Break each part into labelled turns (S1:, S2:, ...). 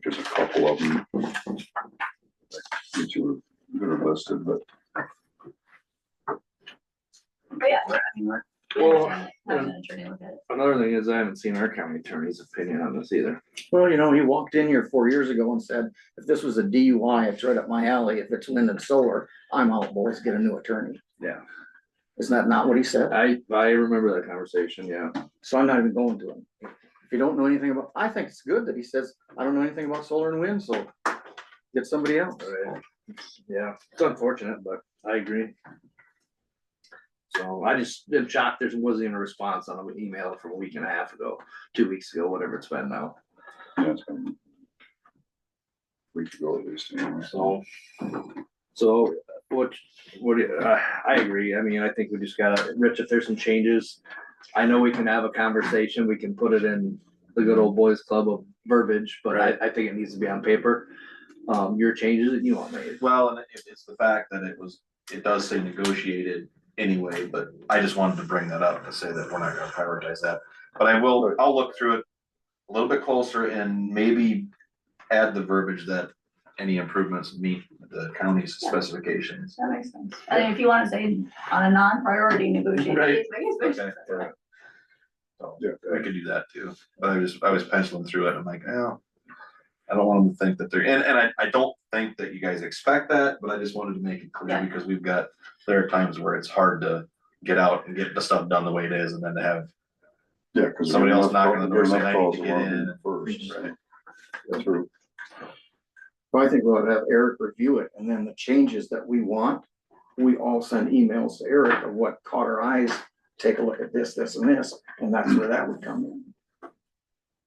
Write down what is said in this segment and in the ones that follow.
S1: couple of them. That you were, that are listed, but.
S2: But yeah, we're, I mean, we're.
S3: Well,
S2: Have an attorney look at it.
S3: Another thing is I haven't seen our county attorney's opinion on this either.
S4: Well, you know, he walked in here four years ago and said, if this was a DUI, it's right up my alley. If it's wind and solar, I'm out, boys, get a new attorney.
S3: Yeah.
S4: Isn't that not what he said?
S3: I, I remember that conversation, yeah.
S4: So I'm not even going to him. If you don't know anything about, I think it's good that he says, I don't know anything about solar and wind, so get somebody else.
S3: Right. Yeah, it's unfortunate, but I agree. So I just, am shocked there wasn't even a response on an email from a week and a half ago, two weeks ago, whatever it's been now,
S1: yeah, it's been a Week ago at least. anyway.
S3: so. So, what, what, do you- uh, I agree, I mean, I think we just gotta, Rich, if there's some changes, I know we can have a conversation, we can put it in the good old boys club of verbiage, but I, I think it needs to be on paper. Um, your changes that you want made,
S5: Well, and it, it's the fact that it was, it does say negotiated anyway, but I just wanted to bring that up to say that we're not gonna prioritize that. But I will, I'll look through it a little bit closer and maybe add the verbiage that any improvements meet the county's specifications.
S2: That makes sense. I mean, if you wanna say on a non-priority negotiation.
S5: Right.
S2: it's like, it's
S5: Okay,
S2: like-
S5: yeah. So,
S1: Yeah,
S5: I could do that too, but I just, I was penciling through it, I'm like, oh. I don't want them to think that they're, and, and I, I don't think that you guys expect that, but I just wanted to make it clear,
S2: Yeah.
S5: because we've got, there are times where it's hard to get out and get the stuff done the way it is, and then to have,
S1: Yeah, cause.
S5: Somebody else knocking on the door
S1: there's
S5: saying,
S1: enough
S5: "I need
S1: calls
S5: to get
S1: along
S5: in."
S1: First,
S5: Right.
S1: right, through,
S4: So I think we'll have Eric review it and then the changes that we want, we all send emails to Eric of what caught our eyes. Take a look at this, this and this, and that's where that would come in.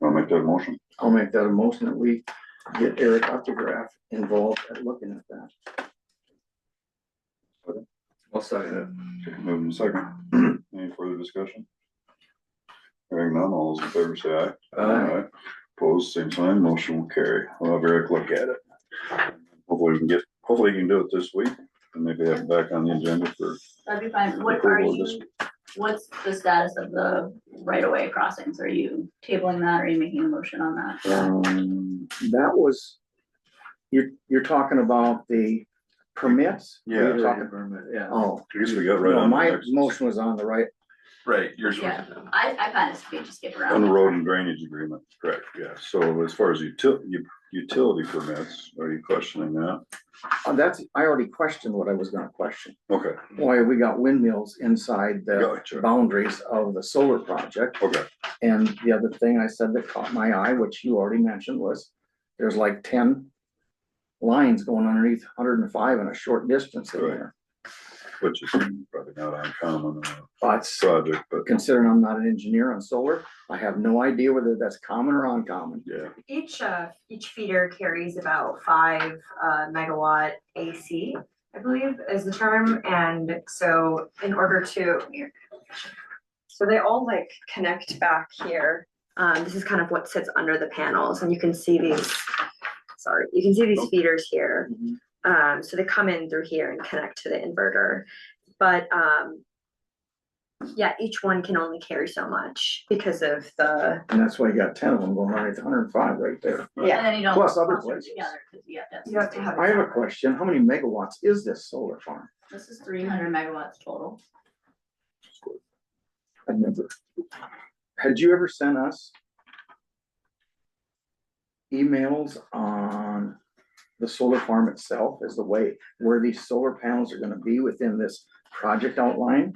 S1: I'll make that a motion.
S4: I'll make that a motion that we get Eric Optograph involved at looking at that.
S3: I'll second it.
S1: Okay, Move in second. Any further discussion? Hearing none, all those in favor say aye. Aye. Opposed, same sign, motion will carry. I'll have Eric look at it. Hopefully we can get, hopefully you can do it this week and maybe have it back on the agenda for,
S2: That'd be fine. What are
S1: Approval of
S2: you, what's the status of the right-of-way crossings? Are you tabling that? Are you making a motion on that?
S4: Um, that was, you're, you're talking about the permits?
S1: Yeah.
S4: You're talking-
S3: Yeah,
S4: Oh,
S1: I guess we got right
S4: no,
S1: on. the
S4: my
S1: next-
S4: motion was on the right,
S5: right, yours was.
S2: Yeah. I, I find this to be just skip
S1: On
S2: around.
S1: the road and drainage agreement, correct, yeah. So as far as util, u- utility permits, are you questioning that?
S4: Uh, that's, I already questioned what I was gonna question.
S1: Okay,
S4: Why we got windmills inside the
S1: Gotcha.
S4: boundaries of the solar project.
S1: okay,
S4: And the other thing I said that caught my eye, which you already mentioned, was there's like ten lines going underneath hundred and five in a short distance in
S1: Right.
S4: there.
S1: which is probably not uncommon on a
S4: But
S1: project, but
S4: considering I'm not an engineer on solar, I have no idea whether that's common or uncommon.
S1: yeah.
S6: Each, uh, each feeder carries about five uh, megawatt AC, I believe is the term, and so in order to. So they all like connect back here, um, this is kind of what sits under the panels, and you can see these, sorry, you can see these feeders here. Um, so they come in through here and connect to the inverter, but, um. Yeah, each one can only carry so much because of the,
S4: And that's why you got ten of them going underneath hundred and five right there.
S6: yeah.
S2: And then you don't.
S4: Plus other
S2: cluster
S4: places.
S2: Together, cause you have to have.
S6: You have to
S2: something.
S6: have
S4: I have a question. How many megawatts is this solar farm?
S2: This is three hundred megawatts total.
S4: I've never. Had you ever sent us? Emails on the solar farm itself as the way where these solar panels are gonna be within this project outline?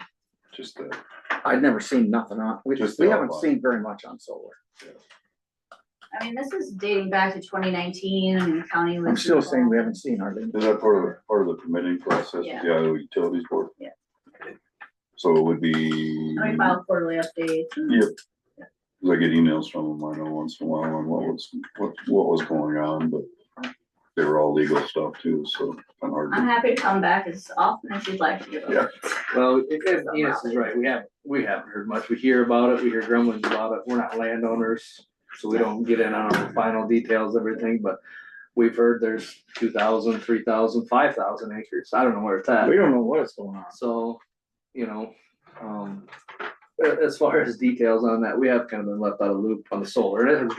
S1: Just uh, that.
S4: I'd never seen nothing on, we
S1: Just
S4: just,
S1: the
S4: we haven't
S1: outline.
S4: seen very much on solar.
S2: I mean, this is dating back to twenty nineteen and the county was.
S4: I'm still saying we haven't seen hardly.
S1: Is that part of, part of the permitting process, yeah,
S2: Yeah.
S1: the utilities board?
S2: Yeah.
S1: So it would be,
S2: I
S1: cause
S2: file quarterly updates. and-
S1: Yeah. I get emails from them, I know once in a while on what was, what, what was going on, but they were all legal stuff too, so I'm hard
S2: I'm
S1: to,
S2: happy to come back as often as you'd like to give
S1: Yeah.
S2: up.
S3: well, if, if, yes, is right, we haven't, we haven't heard much, we hear about it, we hear grumblings about it, we're not landowners. So we don't get in on the final details, of everything, but we've heard there's two thousand, three thousand, five thousand acres, I don't know where it's at.
S4: We don't know what's going on.
S3: So, you know, um, a- as far as details on that, we have kind of been left out of the loop on the solar, and it